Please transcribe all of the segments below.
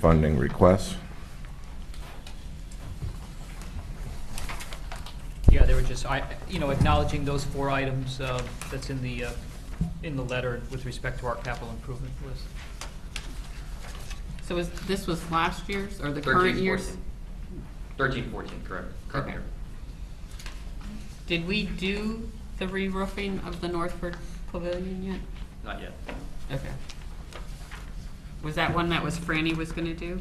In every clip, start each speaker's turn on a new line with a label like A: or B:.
A: funding requests.
B: Yeah, they were just, I, you know, acknowledging those four items uh, that's in the, uh, in the letter with respect to our capital improvement list.
C: So is, this was last year's or the current
D: 13,
C: year's?
D: 14. 13, 14, correct. Current
C: Okay.
D: year.
C: Did we do the re-roofing of the Northford Pavilion yet?
D: Not yet.
C: Okay. Was that one that was Franny was gonna do?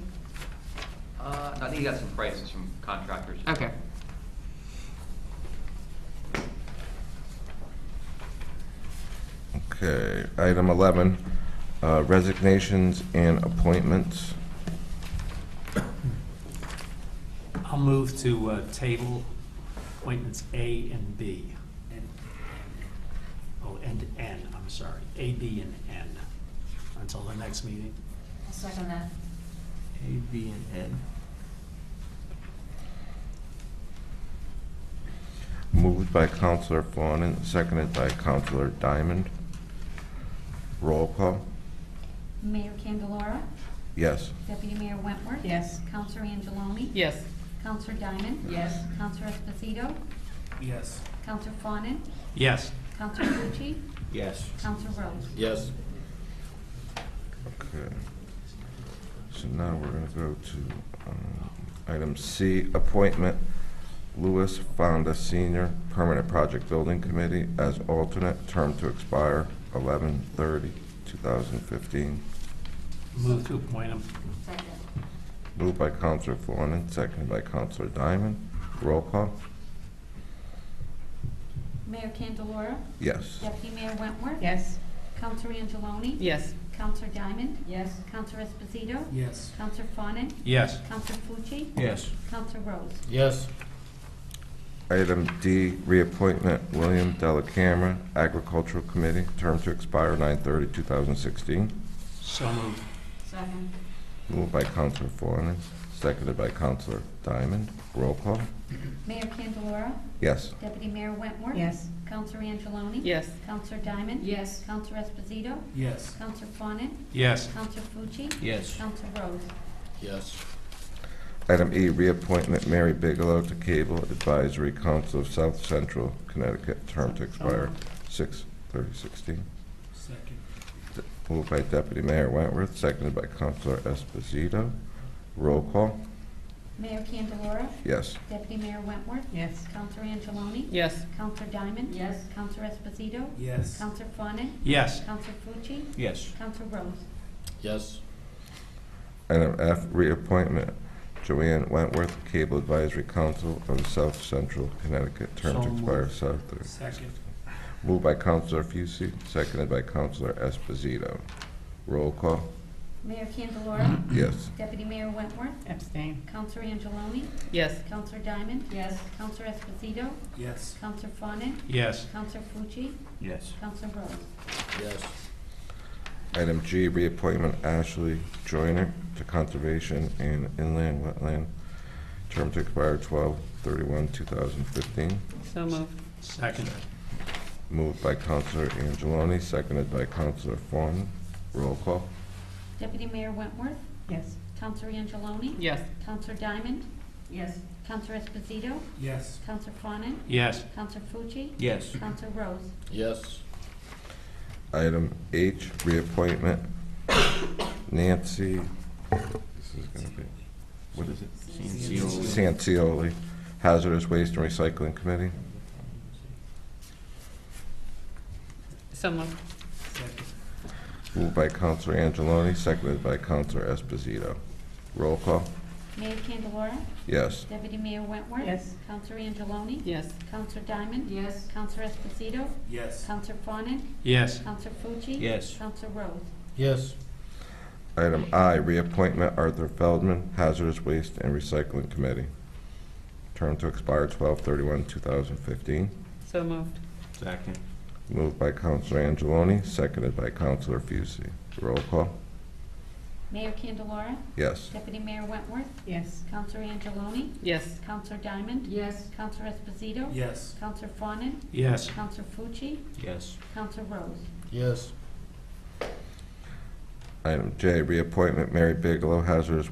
D: Uh, I think you got some prices from contractors.
C: Okay.
A: Okay, item 11, uh, resignations and appointments.
E: I'll move to uh, table appointments A and B. and Oh, and N, I'm sorry, A, B, and N, until the next meeting.
F: I'll second that.
G: A, B, and N.
A: Moved by Counselor Fawnin, seconded by Counselor Diamond. Roll call?
F: Mayor Candelora,
A: Yes.
F: Deputy Mayor Wentworth.
C: Yes.
F: Counselor Angeloni.
C: Yes.
F: Counselor Diamond.
C: Yes.
F: Counselor Esposito.
G: Yes.
F: Counselor Fawnin.
E: Yes,
F: Counselor Pucci.
G: Yes.
F: Counselor Rose.
G: Yes.
A: Okay. So now we're going to go to um, item C, appointment Louis Fonda Senior, Permanent Project Building Committee as alternate, term to expire 11/30/2015.
E: move to appoint him.
F: Second.
A: Moved by Counselor Fawnin, seconded by Counselor Diamond. Roll call?
F: Mayor Candelora,
A: Yes.
F: Deputy Mayor Wentworth.
C: Yes.
F: Counselor Angeloni.
C: Yes.
F: Counselor Diamond.
C: Yes.
F: Counselor Esposito.
G: Yes.
F: Counselor Fawnin.
E: Yes,
F: Counselor Pucci.
G: Yes.
F: Counselor Rose.
G: Yes.
A: Item D, reappointment William Delacamera, Agricultural Committee, term to expire 9/30/2016.
E: so moved.
F: Second.
A: Moved by Counselor Fawnin, seconded by Counselor Diamond. Roll call?
F: Mayor Candelora,
A: Yes.
F: Deputy Mayor Wentworth.
C: Yes.
F: Counselor Angeloni.
C: Yes.
F: Counselor Diamond.
C: Yes.
F: Counselor Esposito.
G: Yes.
F: Counselor Fawnin.
E: Yes,
F: Counselor Fuji.
G: Yes.
F: Counselor Rose.
G: Yes.
A: Item E, reappointment Mary Bigelow to Cable Advisory Council of South Central Connecticut, term to expire 6/30/16.
G: Second.
A: Moved by Deputy Mayor Wentworth, seconded by Counselor Esposito. Roll call?
F: Mayor Candelora.
A: Yes.
F: Deputy Mayor Wentworth.
C: Yes.
F: Counselor Angeloni.
C: Yes.
F: Counselor Diamond. Yes. Counselor Esposito.
G: Yes.
F: Counselor Fawnin.
E: yes,
F: Counselor Fuji.
G: Yes.
F: Counselor Rose.
G: Yes.
A: Item F, reappointment Joanne Wentworth, Cable Advisory Council of South Central Connecticut, term to
E: So
A: expire
E: moved.
A: South thirty.
E: second.
A: Moved by Counselor Fucy, seconded by Counselor Esposito. Roll call?
F: Mayor Candelora.
A: Yes.
F: Deputy Mayor Wentworth.
C: Abstain.
F: Counselor Angeloni.
C: Yes.
F: Counselor Diamond. Yes. Counselor Esposito.
G: Yes.
F: Counselor Fawnin.
E: Yes,
F: Counselor Fuji.
G: Yes.
F: Counselor Rose.
G: Yes.
A: Item G, reappointment Ashley Joyner to Conservation and Inland Wetland, term to expire 12 two thousand fifteen.
C: So moved.
E: second.
A: Moved by Counselor Angeloni, seconded by Counselor Fawnin. Roll call?
F: Deputy Mayor Wentworth.
C: Yes.
F: Counselor Angeloni.
C: Yes.
F: Counselor Diamond.
C: Yes.
F: Counselor Esposito.
G: Yes.
F: Counselor Fawnin.
E: Yes,
F: Counselor Fuji.
G: Yes.
F: Counselor Rose.
G: Yes.
A: Item H, reappointment Nancy, this is gonna be, what is it? Sancioli, Hazardous Waste and Recycling Committee.
C: So moved.
A: Moved by Counselor Angeloni, seconded by Counselor Esposito. Roll call?
F: Mayor Candelora.
A: Yes.
F: Deputy Mayor Wentworth.
C: Yes.
F: Counselor Angeloni.
C: Yes.
F: Counselor Diamond.
C: Yes.
F: Counselor Esposito.
G: Yes.
F: Counselor Fawnin.
E: yes,
F: Counselor Fuji.
G: Yes.
F: Counselor Rose.
G: Yes.
A: Item I, reappointment Arthur Feldman, Hazardous Waste and Recycling Committee. Term to expire 12/31/2015.
C: So moved.
G: Second.
A: Moved by Counselor Angeloni, seconded by Counselor Fucy. Roll call?
F: Mayor Candelora.
A: Yes.
F: Deputy Mayor Wentworth.
C: Yes.
F: Counselor Angeloni.
C: Yes.
F: Counselor Diamond.
C: Yes.
F: Counselor Esposito.
G: Yes.
F: Counselor Fawnin.
E: yes,
F: Counselor Fuji.
G: Yes.
F: Counselor Rose.
G: Yes.
A: Item J, reappointment Mary Bigelow, hazardous waste